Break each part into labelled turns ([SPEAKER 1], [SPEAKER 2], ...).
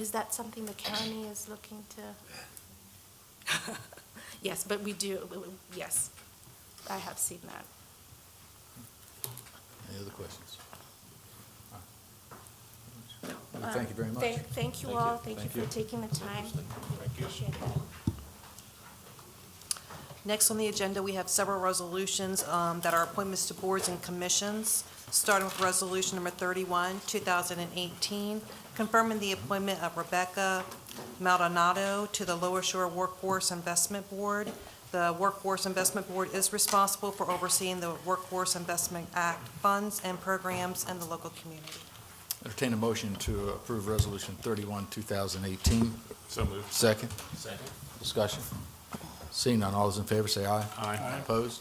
[SPEAKER 1] Is that something the county is looking to? Yes, but we do, we- we- yes, I have seen that.
[SPEAKER 2] Any other questions? Well, Thank you very much.
[SPEAKER 1] Um, Thank- Thank you all, thank you for taking the time. Appreciate it.
[SPEAKER 3] Next on the agenda, we have several resolutions um, that are appointments to boards and commissions, starting with Resolution Number 31, 2018, confirming the appointment of Rebecca Maldonado to the Lower Shore Workforce Investment Board. The Workforce Investment Board is responsible for overseeing the Workforce Investment Act funds and programs in the local community.
[SPEAKER 2] Entertain a motion to approve Resolution 31, 2018.
[SPEAKER 4] So moved.
[SPEAKER 2] Second,
[SPEAKER 4] Second.
[SPEAKER 2] discussion. Seeing none, all those in favor say aye.
[SPEAKER 4] Aye. Aye.
[SPEAKER 2] Opposed?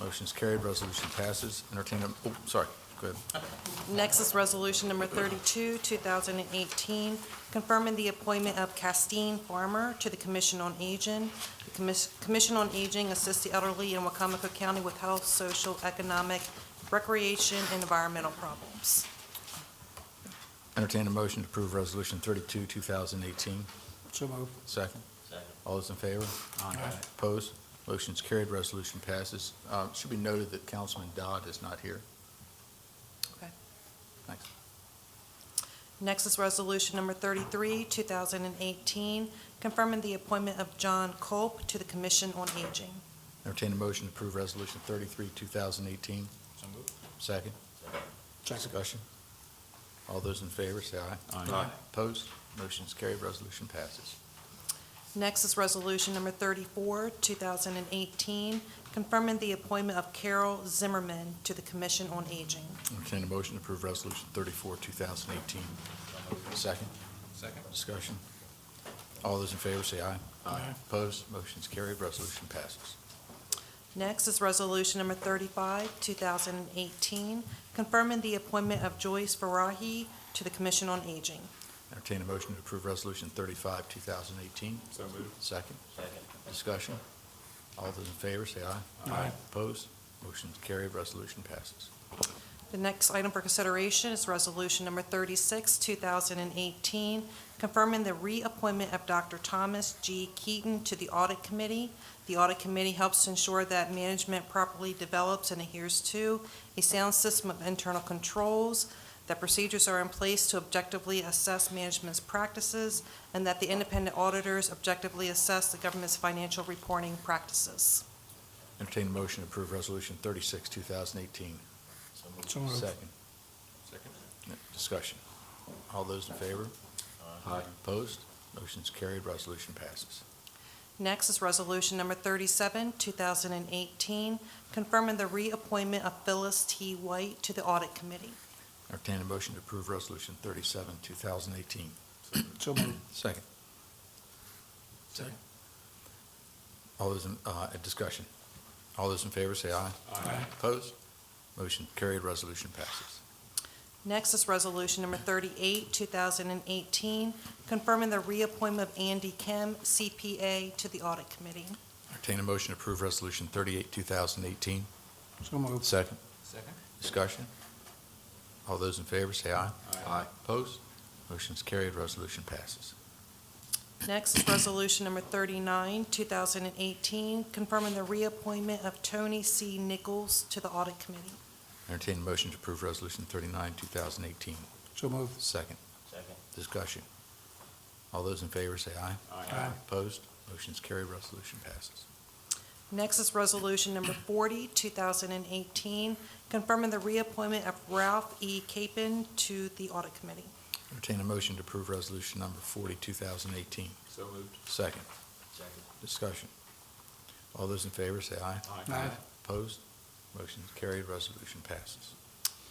[SPEAKER 2] Motion's carried, resolution passes. Entertain a, oh, sorry, go ahead.
[SPEAKER 3] Next is Resolution Number 32, 2018, confirming the appointment of Castine Farmer to the Commission on Aging. The commis- Commission on Aging assists the elderly in Wacomico County with health, social, economic, recreation, and environmental problems.
[SPEAKER 2] Entertain a motion to approve Resolution 32, 2018.
[SPEAKER 5] So moved.
[SPEAKER 2] Second? Second. All those in favor? Aye. Opposed? Motion's carried, resolution passes. Uh, Should be noted that Councilman Dodd is not here.
[SPEAKER 3] Okay.
[SPEAKER 2] Thanks.
[SPEAKER 3] Next is Resolution Number 33, 2018, confirming the appointment of John Culp to the Commission on Aging.
[SPEAKER 2] Entertain a motion to approve Resolution 33, 2018.
[SPEAKER 4] So moved.
[SPEAKER 2] Second?
[SPEAKER 5] Second.
[SPEAKER 2] Discussion? All those in favor, say aye.
[SPEAKER 4] Aye. Aye.
[SPEAKER 2] Opposed? Motion's carried, resolution passes.
[SPEAKER 3] Next is Resolution Number 34, 2018, confirming the appointment of Carol Zimmerman to the Commission on Aging.
[SPEAKER 2] Entertain a motion to approve Resolution 34, 2018. Second?
[SPEAKER 4] Second.
[SPEAKER 2] Discussion? All those in favor, say aye.
[SPEAKER 5] Aye.
[SPEAKER 2] Opposed? Motion's carried, resolution passes.
[SPEAKER 3] Next is Resolution Number 35, 2018, confirming the appointment of Joyce Farahi to the Commission on Aging.
[SPEAKER 2] Entertain a motion to approve Resolution 35, 2018.
[SPEAKER 4] So moved.
[SPEAKER 2] Second? Second. Discussion? All those in favor, say aye.
[SPEAKER 5] Aye.
[SPEAKER 2] Opposed? Motion's carried, resolution passes.
[SPEAKER 3] The next item for consideration is Resolution Number 36, 2018, confirming the reappointment of Dr. Thomas G. Keaton to the Audit Committee. The Audit Committee helps to ensure that management properly develops and adheres to a sound system of internal controls, that procedures are in place to objectively assess management's practices, and that the independent auditors objectively assess the government's financial reporting practices.
[SPEAKER 2] Entertain a motion to approve Resolution 36, 2018.
[SPEAKER 5] So moved.
[SPEAKER 2] Second.
[SPEAKER 4] Second.
[SPEAKER 2] Discussion. All those in favor? Aye. Opposed? Motion's carried, resolution passes.
[SPEAKER 3] Next is Resolution Number 37, 2018, confirming the reappointment of Phyllis T. White to the Audit Committee.
[SPEAKER 2] Entertain a motion to approve Resolution 37, 2018.
[SPEAKER 5] So moved.
[SPEAKER 2] Second. Second. All those in, uh, discussion. All those in favor say aye.
[SPEAKER 4] Aye.
[SPEAKER 2] Opposed? Motion carried, resolution passes.
[SPEAKER 3] Next is Resolution Number 38, 2018, confirming the reappointment of Andy Kim, CPA, to the Audit Committee.
[SPEAKER 2] Entertain a motion to approve Resolution 38, 2018.
[SPEAKER 5] So moved.
[SPEAKER 2] Second.
[SPEAKER 4] Second.
[SPEAKER 2] Discussion? All those in favor say aye.
[SPEAKER 4] Aye. Aye.
[SPEAKER 2] Opposed? Motion's carried, resolution passes.
[SPEAKER 3] Next is Resolution Number 39, 2018, confirming the reappointment of Tony C. Nichols to the Audit Committee.
[SPEAKER 2] Entertain a motion to approve Resolution 39, 2018.
[SPEAKER 5] So moved.
[SPEAKER 2] Second.
[SPEAKER 4] Second.
[SPEAKER 2] Discussion? All those in favor say aye.
[SPEAKER 5] Aye.
[SPEAKER 2] Opposed? Motion's carried, resolution passes.
[SPEAKER 3] Next is Resolution Number 40, 2018, confirming the reappointment of Ralph E. Capen to the Audit Committee.
[SPEAKER 2] Entertain a motion to approve resolution number 40, 2018.
[SPEAKER 4] So moved.
[SPEAKER 2] Second,
[SPEAKER 4] Second.
[SPEAKER 2] discussion. All those in favor say aye.
[SPEAKER 5] Aye.
[SPEAKER 2] Opposed? Motion is carried, resolution passes.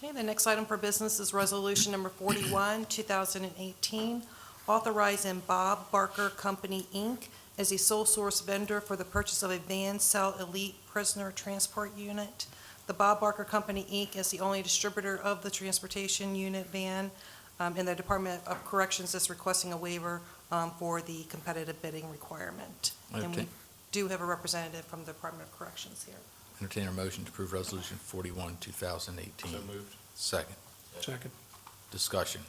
[SPEAKER 3] Okay, the next item for business is Resolution Number 41, 2018, authorizing Bob Barker Company, Inc. as a sole source vendor for the purchase of a van cell elite prisoner transport unit. The Bob Barker Company, Inc. is the only distributor of the transportation unit van, um, and the Department of Corrections is requesting a waiver um, for the competitive bidding requirement. And we
[SPEAKER 2] Entertain-
[SPEAKER 3] do have a representative from the Department of Corrections here.
[SPEAKER 2] Entertain a motion to approve resolution 41, 2018.
[SPEAKER 4] So moved.
[SPEAKER 2] Second,
[SPEAKER 5] Second.
[SPEAKER 2] discussion.